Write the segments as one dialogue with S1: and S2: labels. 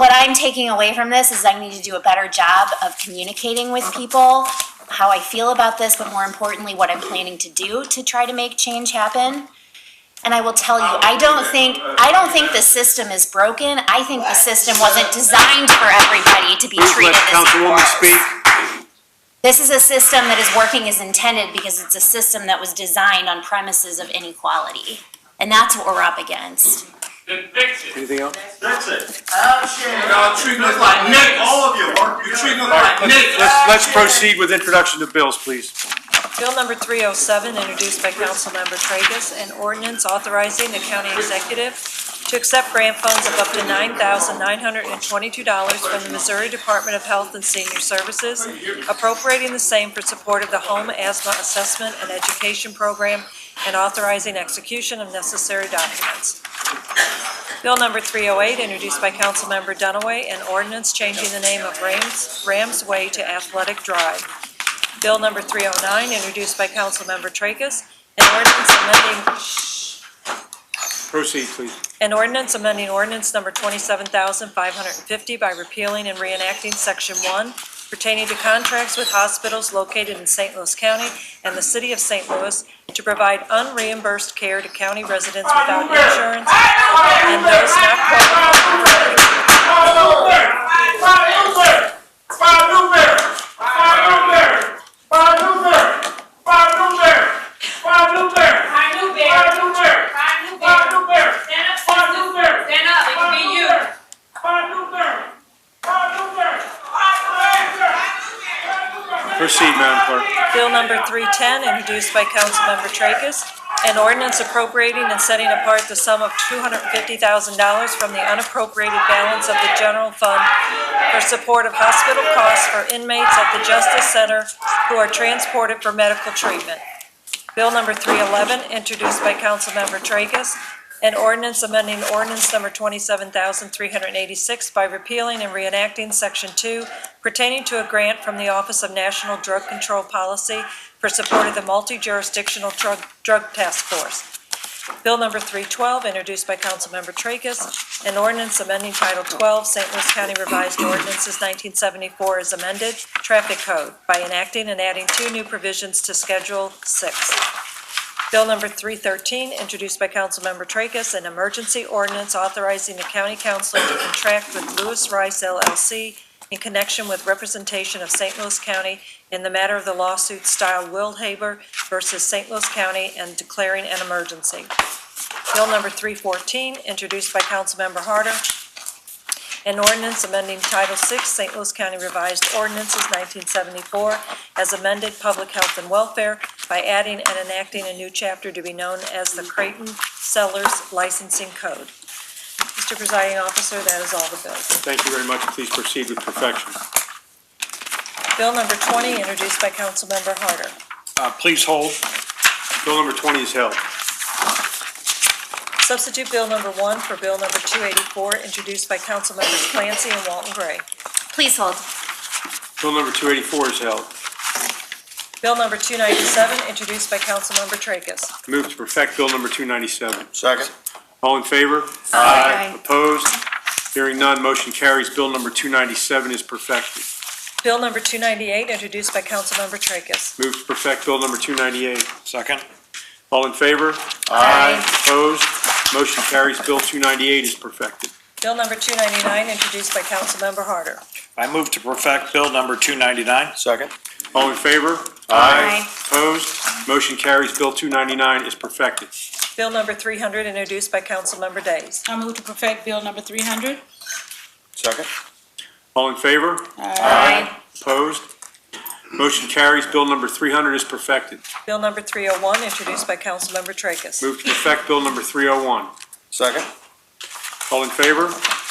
S1: I'm taking away from this is I need to do a better job of communicating with people how I feel about this, but more importantly, what I'm planning to do to try to make change happen. And I will tell you, I don't think, I don't think the system is broken. I think the system wasn't designed for everybody to be
S2: Please
S1: treated
S2: let
S1: as equals.
S2: Councilwoman speak.
S1: This is a system that is working as intended because it's a system that was designed on premises of inequality. And that's what we're up against.
S3: Then fix it.
S2: Anything else?
S4: That's it.
S3: Y'all treating us like
S4: All
S3: niggas.
S4: of you, work
S3: You're
S4: together.
S3: treating us like niggas.
S2: Let's, let's proceed with introduction of bills, please.
S5: Bill number 307, introduced by Councilmember Tracus, an ordinance authorizing the county executive to accept grant funds of up to $9,922 from the Missouri Department of Health and Senior Services, appropriating the same for support of the Home Asthma Assessment and Education Program, and authorizing execution of necessary documents. Bill number 308, introduced by Councilmember Dunaway, an ordinance changing the name of Rams Rams Way to Athletic Drive. Bill number 309, introduced by Councilmember Tracus, an ordinance amending,
S2: Proceed, please.
S5: an ordinance amending ordinance number 27,550 by repealing and reenacting Section 1 pertaining to contracts with hospitals located in St. Louis County and the City of St. Louis to provide unreimbursed care to county residents without insurance and those not qualified for
S2: Proceed, Madam Clerk.
S5: Bill number 310, introduced by Councilmember Tracus, an ordinance appropriating and setting apart the sum of $250,000 from the unappropriated balance of the general fund for support of hospital costs for inmates at the Justice Center who are transported for medical treatment. Bill number 311, introduced by Councilmember Tracus, an ordinance amending ordinance number 27,386 by repealing and reenacting Section 2 pertaining to a grant from the Office of National Drug Control Policy for support of the multi-jurisdictional drug, drug task force. Bill number 312, introduced by Councilmember Tracus, an ordinance amending Title 12, St. Louis County Revised Ordinances 1974 as amended, Traffic Code, by enacting and adding two new provisions to Schedule 6. Bill number 313, introduced by Councilmember Tracus, an emergency ordinance authorizing the county council to contract with Lewis Rice LLC in connection with representation of St. Louis County in the matter of the lawsuit style Will Haber versus St. Louis County and declaring an emergency. Bill number 314, introduced by Councilmember Harder, an ordinance amending Title VI, St. Louis County Revised Ordinances 1974, as amended Public Health and Welfare by adding and enacting a new chapter to be known as the Creighton Sellers Licensing Code. Mr. Presiding Officer, that is all the bills.
S2: Thank you very much. Please proceed with perfection.
S5: Bill number 20, introduced by Councilmember Harder.
S2: Uh, please hold. Bill number twenty is held.
S5: Substitute Bill number 1 for Bill number 284, introduced by Councilmembers Clancy and Walton Gray.
S1: Please hold.
S2: Bill number two eighty-four is held.
S5: Bill number 297, introduced by Councilmember Tracus.
S2: Move to perfect Bill number two ninety-seven.
S4: Second.
S2: All in favor?
S1: Aye.
S2: Opposed? Hearing none, motion carries. Bill number two ninety-seven is perfected.
S5: Bill number 298, introduced by Councilmember Tracus.
S2: Move to perfect Bill number 298. Second. All in favor?
S1: Aye.
S2: Opposed? Motion carries. Bill 298 is perfected.
S5: Bill number 299, introduced by Councilmember Harder.
S6: I move to perfect Bill number 299.
S4: Second.
S2: All in favor?
S1: Aye.
S2: Opposed? Motion carries. Bill 299 is perfected.
S5: Bill number 300, introduced by Councilmember Days.
S7: I move to perfect Bill number 300.
S4: Second.
S2: All in favor?
S1: Aye.
S2: Opposed? Motion carries. Bill number 300 is perfected.
S5: Bill number 301, introduced by Councilmember Tracus.
S2: Move to perfect Bill number 301.
S4: Second.
S2: All in favor?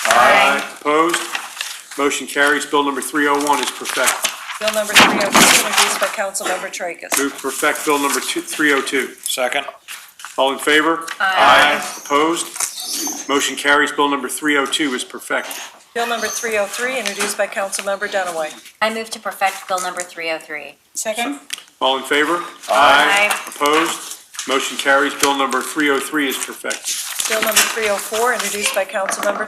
S2: Aye. Opposed? Motion carries. Bill number 301 is perfected.
S5: Bill number 302, introduced by Councilmember Tracus.
S2: Move to perfect Bill number two- 302.
S6: Second.
S2: All in favor?
S5: Aye.
S2: Opposed? Motion carries. Bill number 302 is perfected.
S5: Bill number 303, introduced by Councilmember Dunaway.
S1: I move to perfect Bill number 303.
S7: Second.
S2: All in favor?
S1: Aye.
S2: Opposed? Motion carries. Bill number 303 is perfected.
S5: Bill number 304, introduced by Councilmember